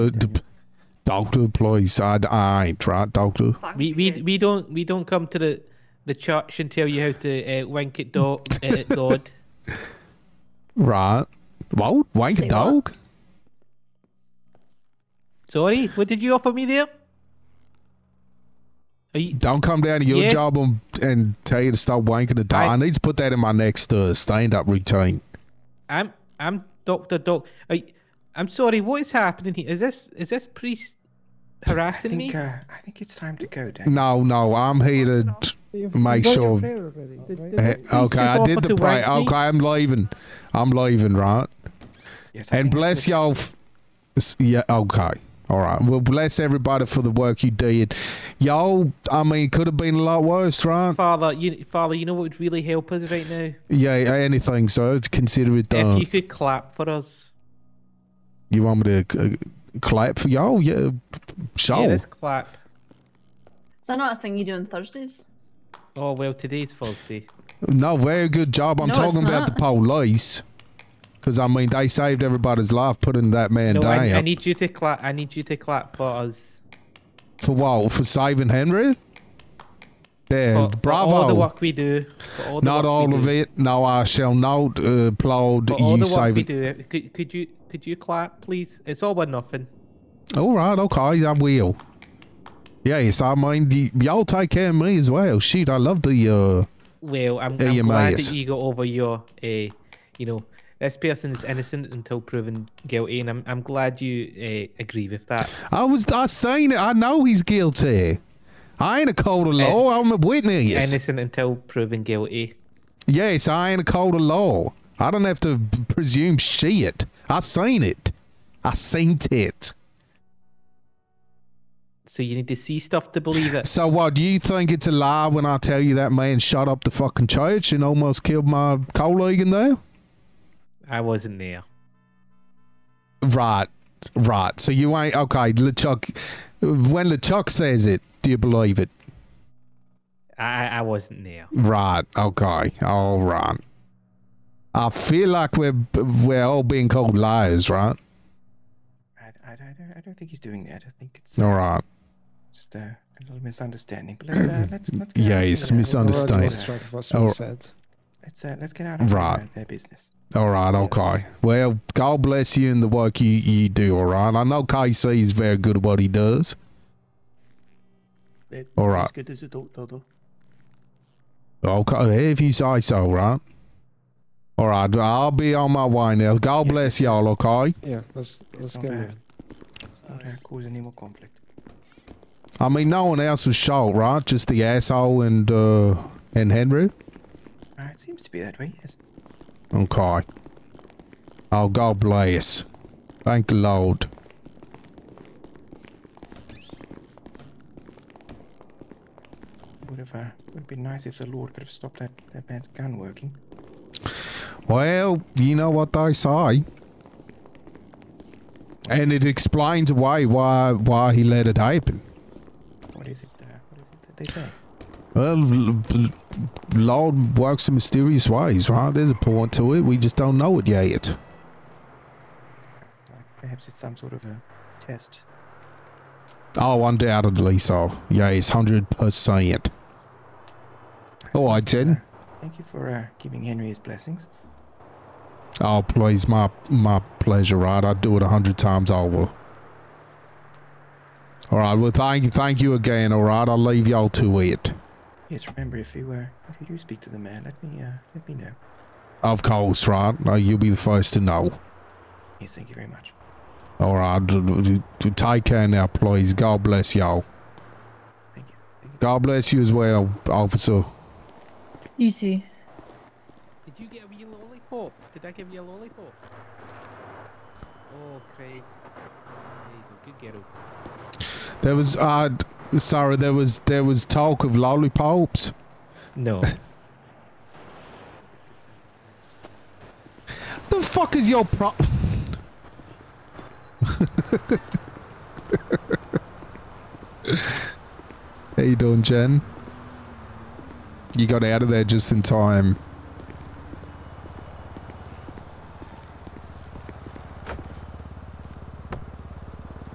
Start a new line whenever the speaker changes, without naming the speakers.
Uh, d- doctor, please. I, I ain't right, doctor.
Thank
We we
you.
we don't we don't come to the the church and tell you how to uh, wank it, do- uh, Lord.
Right. What? Wank
Say
a
what?
dog?
Sorry, what did you offer me there? Are you,
Don't come down to your
Yes.
job and, and tell you to stop wanking a dog. I,
I-
need to put that in my next uh, stand up routine.
I'm I'm Doctor Doc. Are you, I'm sorry. What is happening here? Is this is this priest harassing
I
me?
think, uh, I think it's time to go, Dan.
No, no, I'm here to.
You've-
Make
you've done your
sure-
prayer already. Did- did-
Eh,
Please
okay,
just
I did
offer
the
to
pray.
wank me.
Okay, I'm leaving. I'm leaving, right?
Yes, I
And
think it's
bless
the best-
y'all. F- s- yeah, okay. All right. Well, bless everybody for the work you did. Y'all, I mean, could have been a lot worse, right?
Father, you Father, you know what would really help us right now?
Yeah, anything, so consider it
If
done.
you
You,
could clap for us.
want me to uh, clap for y'all? Yeah,
Yeah,
sure.
let's clap.
Is that not a thing you do on Thursdays?
Oh well, today's Thursday.
no, very good job. I'm
No, it's
talking about the police. Because, I mean, they saved everybody's life putting that man
no,
down.
I, I need you to clap. I need you to clap for us.
for what? For saving Henry? There,
For,
bravo.
For all the work we do. For all the
not
work
all
we
of
do.
it. No, I shall not uh, applaud
For all
you
the work we
saving.
do. Could, could you could you clap, please? It's all or nothing.
All right, okay, I will. Yes, I mean, y- y'all take care of me as well. Shoot, I love the, uh,
Well, I'm,
Yeah,
I'm
you
glad
might.
that you got over your, uh, you know, this person is innocent until proven guilty, and I'm, I'm glad you uh, agree with that.
I was, I seen it. I know he's guilty. I ain't a cold of law. I'm a witness.
Innocent until proven guilty.
yes, I ain't a cold of law. I don't have to p- presume shit. I seen it. I seen it.
So you need to see stuff to believe it.
So what, do you think it's a lie when I tell you that man shot up the fucking church and almost killed my colleague in there?
I wasn't there.
Right, right. So you ain't okay, LeChuck. When LeChuck says it, do you believe it?
I, I- I wasn't there.
Right. Okay. All right. I feel like we're we're all being called liars, right?
I, I, I, don't, I don't think he's doing that. I think it's
All right.
just uh, a little misunderstanding. But let's uh, let's let's get
Yeah,
out of
it's
here.
you've already
misunderstanding.
Let's,
lost
uh,
track of what's
Oh.
been said.
Let's uh, let's get out of
Right.
their, their business.
All right.
Yes.
Okay. Well, God bless you and the work you you do. All right. I know KC is very good at what he does. All right.
As good as a doctor, though.
Okay. If you say so, right. All right. I'll be on my way now. God
Yes,
bless y'all. Okay.
Yeah, let's let's
not
get
bad.
moving.
Let's not uh, cause any more conflict.
I mean, no one else was shot, right? Just the asshole and uh and Henry.
Uh, it seems to be that way. Yes.
Okay. Oh, God bless. Thank the Lord.
Would have uh, would have been nice if the Lord could have stopped that, that man's gun working.
Well, you know what they say. And it explains away why why he let it happen.
What is it? Uh, what is it that they say?
Well, l- l- Lord works in mysterious ways, right? There's a point to it. We just don't know it yet.
Like perhaps it's some sort of a test.
Oh, undoubtedly so. Yes, hundred percent. All right, then.
Thank you for uh, giving Henry his blessings.
Oh, please, my my pleasure, right? I'd do it a hundred times over. All right, well, thank you, thank you again. All right, I'll leave y'all to it.
Yes, remember if you uh, if you do speak to the man, let me uh, let me know.
Of course, right? Uh, You'll be the first to know.
Yes, thank you very much.
All right, d- d- d- take care now, please. God bless y'all.
Thank you. Thank you.
God bless you as well, officer.
You too.
Did you get a wee lollipop? Did I give you a lollipop? Oh, Christ. There you go. Good girl.
There was, uh, d- sorry, there was there was talk of lollipops.
No.
The fuck is your pro? How you doing, Jen? You got out of there just in time.